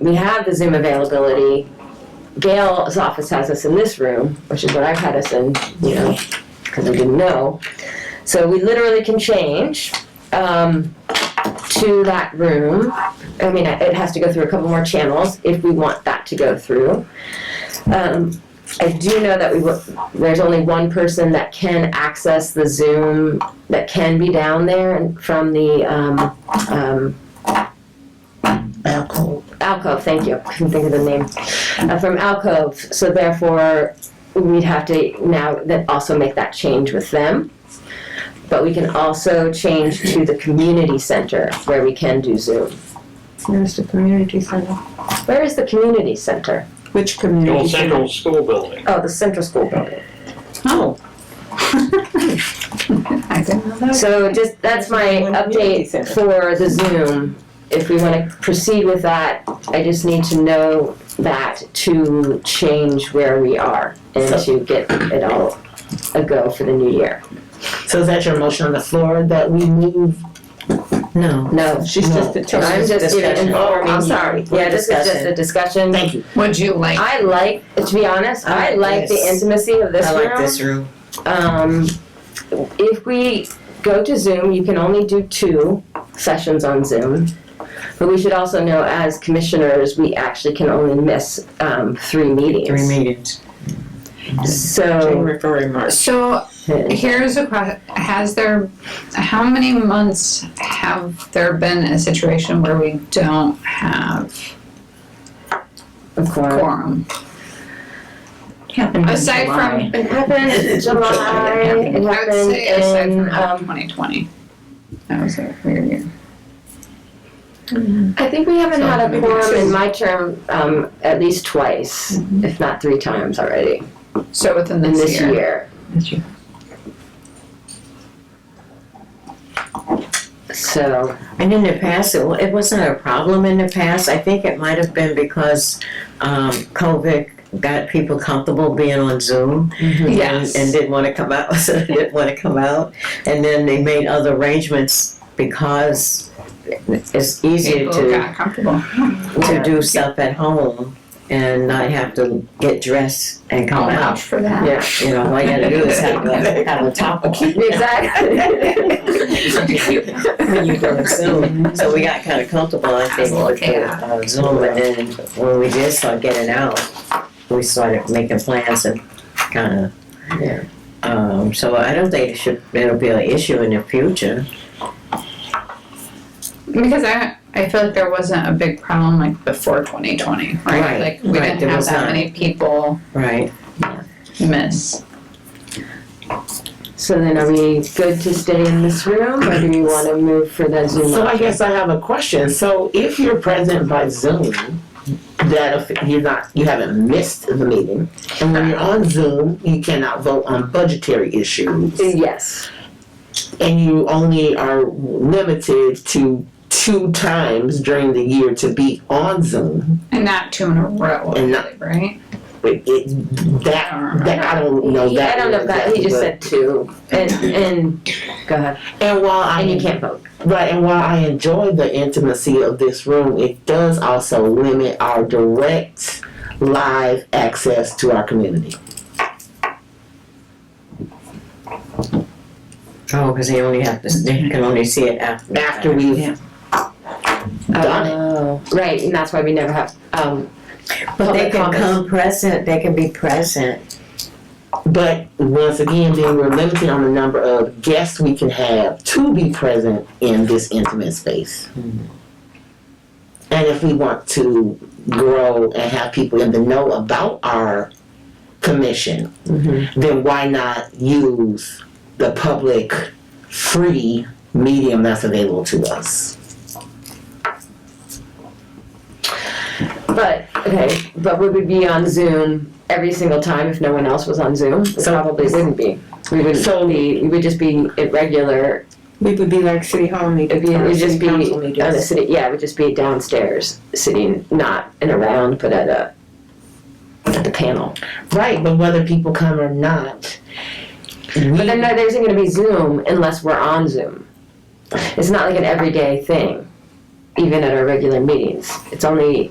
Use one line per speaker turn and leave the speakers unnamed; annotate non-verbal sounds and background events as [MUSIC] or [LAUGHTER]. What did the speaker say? we have the Zoom availability. Gail's office has us in this room, which is what I've had us in, you know, because I didn't know. So we literally can change um, to that room. I mean, it has to go through a couple more channels if we want that to go through. Um, I do know that we wo- there's only one person that can access the Zoom that can be down there and from the um, um,
Alcohol.
Alcove, thank you, I couldn't think of the name, Uh, from Alcove, so therefore, we'd have to now that also make that change with them. But we can also change to the community center where we can do Zoom.
There's the community center.
Where is the community center?
Which
The
community
old
center?
central school building.
Oh, the central school building.
Oh. [LAUGHS] I didn't know that.
So just, that's my update for the Zoom. If we wanna proceed with that, I just need to know that to change where we are and to get it all a go for the new year.
So is that your motion on the floor that we move? No.
No,
She's
just
a
I'm just giving, oh, I'm sorry, yeah, this is just a discussion.
Thank you.
Would you like?
I like, to be honest, I
I
like
like
the
this.
intimacy of this
I
room.
like this room.
Um, if we go to Zoom, you can only do two sessions on Zoom. But we should also know as commissioners, we actually can only miss, um, three meetings.
Three meetings. Jane
So,
referring March.
So here's a question, has there, how many months have there been a situation where we don't have
of course.
quorum? Aside from,
It happened in July, it
I would
happened
say aside
in,
from
um,
twenty twenty.
Um,
That was a weird year.
I think we haven't
So
had a
maybe
quorum
two.
in my term, um, at least twice, if not three times already,
So within
in
this
Mm-hmm. this
year.
year. So,
And in the past, it, wa- it wasn't a problem in the past. I think it might have been because um, COVID got people comfortable being on Zoom and-
Yes.
and, didn't want to come out, [LAUGHS] so they didn't want to come out. And then they made other arrangements because it's easier
People
to.
got comfortable.
to do stuff at home and not have to get dressed and come
I'll vouch
out.
for that.
yeah,
You know, all you gotta do is have [LAUGHS] a, have a
[LAUGHS]
topic
exactly.
when you go to Zoom. [LAUGHS] So we got kinda comfortable, I think, with the, uh, Zoom and then when we did start getting out, we started making plans and kinda.
Yeah.
Um, so I don't think it should, it'll be an issue in the future.
[LAUGHS] Because I I feel like there wasn't a big problem like before 2020, right?
Right,
Like we
right,
didn't
there
have
was
that
not.
many people
Right.
miss.
So then are we good to stay in this room or do we want to move for the Zoom?
So I
option?
guess I have a question. So if you're present by Zoom, that if you're not, you haven't missed the meeting. And when you're on Zoom, you cannot vote on budgetary issues.
Yes,
And you only are limited to two times during the year to be on Zoom.
And not two in a row,
And not-
right?
But it,
I
that,
don't remember.
that, I don't know
Yeah,
that.
I don't know if that, he just said two and, and, go ahead,
And while I.
and you can't vote.
Right, and while I enjoy the intimacy of this room, it does also limit our direct live access to our community.
Oh, cause they only have to, they can only see it after.
After we've
Yeah.
done it.
Oh, Right, and that's why we never have, um,
But they
Public
can
comments.
come present, they can be present.
But once again, then we're limited on the number of guests we can have to be present in this intimate space. And if we want to grow and have people in the know about our commission,
Mm-hmm.
then why not use the public free medium that's available to us?
but, okay, but would we be on Zoom every single time if no one else was on Zoom? We
So-
probably wouldn't be. We wouldn't
So-
be, we would just be irregular,
We would be like city hall
it
meetings.
would
or
just
city
be on
council
the
meetings.
city, yeah, it would just be downstairs, sitting, not in a round, but at a, at the panel.
Right, but whether people come or not.
But then there isn't going to be Zoom unless we're on Zoom. It's not like an everyday thing, even at our regular meetings. It's only